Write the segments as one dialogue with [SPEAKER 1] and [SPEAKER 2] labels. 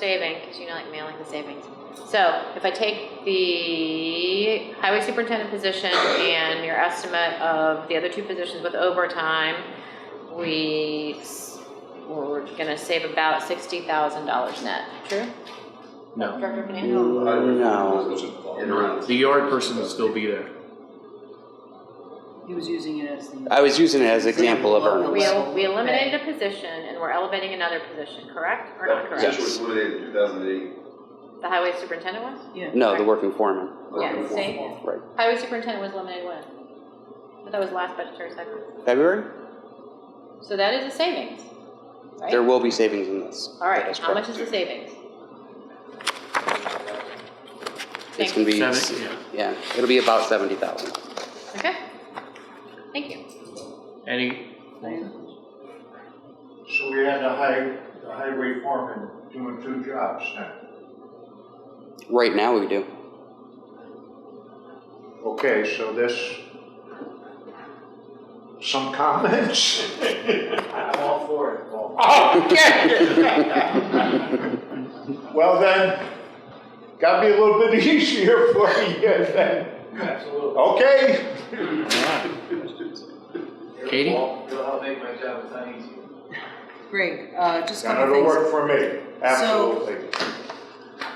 [SPEAKER 1] saving, because you know, like mailing the savings. So if I take the highway superintendent position and your estimate of the other two positions with overtime, we, s- we're gonna save about sixty thousand dollars net. True?
[SPEAKER 2] No.
[SPEAKER 1] Director Fernando?
[SPEAKER 3] No.
[SPEAKER 2] The yard person will still be there.
[SPEAKER 4] He was using it as the.
[SPEAKER 3] I was using it as an example of
[SPEAKER 1] We,
[SPEAKER 3] earnings.
[SPEAKER 1] el- we eliminated a position and we're elevating another position, correct or not
[SPEAKER 5] That
[SPEAKER 1] correct?
[SPEAKER 5] position was eliminated in 2008.
[SPEAKER 1] The highway superintendent was?
[SPEAKER 4] Yeah.
[SPEAKER 3] No, the working foreman.
[SPEAKER 1] Yeah, same.
[SPEAKER 3] Right.
[SPEAKER 1] Highway superintendent was eliminated when? But that was last budgetary cycle.
[SPEAKER 3] February?
[SPEAKER 1] So that is a savings, right?
[SPEAKER 3] There will be savings in this.
[SPEAKER 1] All
[SPEAKER 3] That
[SPEAKER 1] right,
[SPEAKER 3] is
[SPEAKER 1] how much
[SPEAKER 3] correct.
[SPEAKER 1] is the savings?
[SPEAKER 3] It's
[SPEAKER 1] Thank
[SPEAKER 3] gonna be,
[SPEAKER 2] Seven,
[SPEAKER 3] s-
[SPEAKER 2] yeah.
[SPEAKER 3] yeah, it'll be about seventy thousand.
[SPEAKER 1] Okay, thank you.
[SPEAKER 2] Any,
[SPEAKER 6] So we had the high, the highway foreman doing two jobs now.
[SPEAKER 3] Right now, we do.
[SPEAKER 6] Okay, so this, some comments? I'm all for it. Okay. Well then, gotta be a little bit easier for you then. Absolutely. Okay.
[SPEAKER 2] Katie?
[SPEAKER 6] I'll make my job a ton easier.
[SPEAKER 4] Greg, uh, just a
[SPEAKER 6] And
[SPEAKER 4] couple
[SPEAKER 6] it'll
[SPEAKER 4] things.
[SPEAKER 6] work for me, absolutely.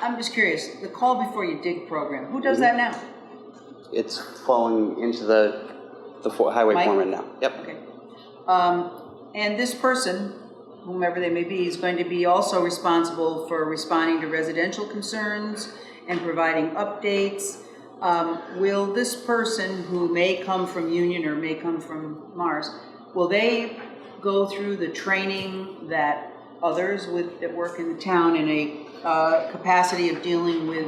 [SPEAKER 4] I'm just curious, the call before you dig program, who does that now?
[SPEAKER 3] It's falling into the, the fo- highway
[SPEAKER 4] Mike?
[SPEAKER 3] foreman now. Yep.
[SPEAKER 4] Okay. Um, and this person, whomever they may be, is going to be also responsible for responding to residential concerns and providing updates. Um, will this person who may come from Union or may come from Mars, will they go through the training that others with, that work in the town in a, uh, capacity of dealing with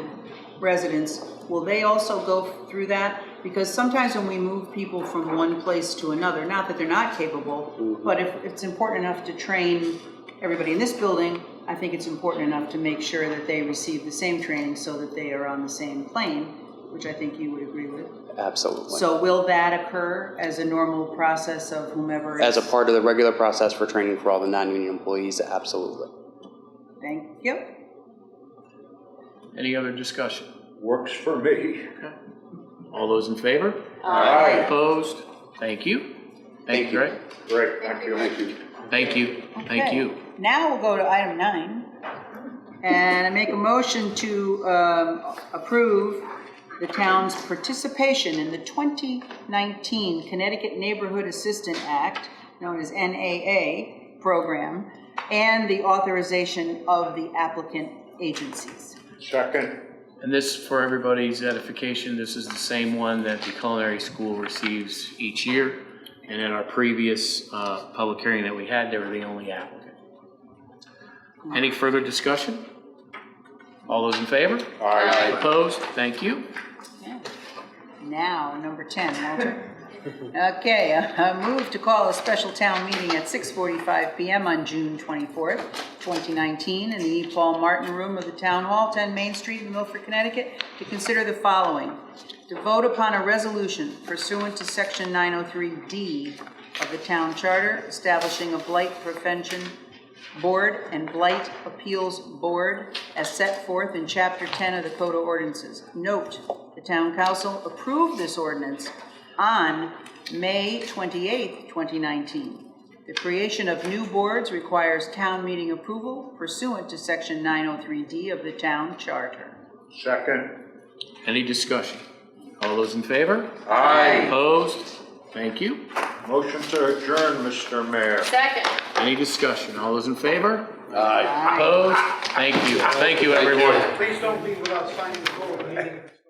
[SPEAKER 4] residents, will they also go through that? Because sometimes when we move people from one place to another, not that they're not capable,
[SPEAKER 3] Mm-hmm.
[SPEAKER 4] but if it's important enough to train everybody in this building, I think it's important enough to make sure that they receive the same training so that they are on the same plane, which I think you would agree with.
[SPEAKER 3] Absolutely.
[SPEAKER 4] So will that occur as a normal process of whomever?
[SPEAKER 3] As a
[SPEAKER 4] is-
[SPEAKER 3] part of the regular process for training for all the non-union employees, absolutely.
[SPEAKER 4] Thank you.
[SPEAKER 2] any other discussion?
[SPEAKER 6] Works for me.
[SPEAKER 2] All those in favor?
[SPEAKER 6] All right,
[SPEAKER 2] Opposed? Thank you. Thank you, Greg.
[SPEAKER 6] great, thank you. Thank you.
[SPEAKER 2] Thank you, thank
[SPEAKER 4] Okay.
[SPEAKER 2] you.
[SPEAKER 4] Now we'll go to item nine, and I make a motion to um, approve the town's participation in the 2019 Connecticut Neighborhood Assistant Act, known as NAA, program, and the authorization of the applicant agencies.
[SPEAKER 6] Second,
[SPEAKER 2] And this, for everybody's edification, this is the same one that the culinary school receives each year. And in our previous uh, public hearing that we had, they were the only applicant. Any further discussion? All those in favor?
[SPEAKER 6] aye.
[SPEAKER 2] Opposed? Thank you.
[SPEAKER 4] Now, number 10, Walter. Okay, I move to call a special town meeting at 6:45 PM on June 24th, 2019, in the E. Paul Martin Room of the Town Hall, 10 Main Street in Milford, Connecticut, to consider the following. To vote upon a resolution pursuant to Section 903D of the Town Charter establishing a blight prevention Board and Blight Appeals Board as set forth in Chapter 10 of the Code of Ordinances. Note, the town council approved this ordinance on May 28, 2019. The creation of new boards requires town meeting approval pursuant to Section 903D of the town charter.
[SPEAKER 6] Second,
[SPEAKER 2] Any discussion? All those in favor?
[SPEAKER 6] aye.
[SPEAKER 2] Opposed? Thank you.
[SPEAKER 6] Motion to adjourn, Mr. Mayor.
[SPEAKER 1] Second.
[SPEAKER 2] Any discussion? All those in favor? Aye. Opposed? Thank you. Thank you, everyone.
[SPEAKER 7] Please don't leave without signing the board meeting.